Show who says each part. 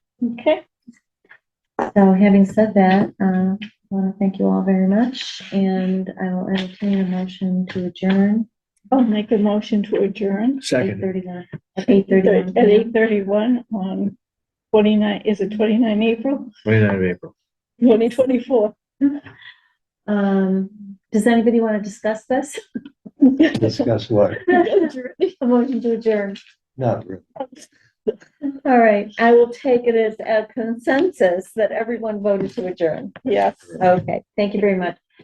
Speaker 1: Okay,
Speaker 2: So having said that, uh, I want to thank you all very much and I will entertain a motion to adjourn.
Speaker 1: I'll make a motion to adjourn
Speaker 3: Second.
Speaker 2: 8:31 At eight
Speaker 1: at
Speaker 2: thirty-one.
Speaker 1: eight thirty-one on twenty-nine, is it twenty-nine April,
Speaker 3: 29th of April.
Speaker 1: twenty twenty-four?
Speaker 2: Um, does anybody want to discuss this?
Speaker 3: Discuss what?
Speaker 2: A motion to adjourn.
Speaker 3: Not really.
Speaker 2: All right, I will take it as a consensus that everyone voted to adjourn.
Speaker 1: Yes.
Speaker 2: Okay, thank you very much.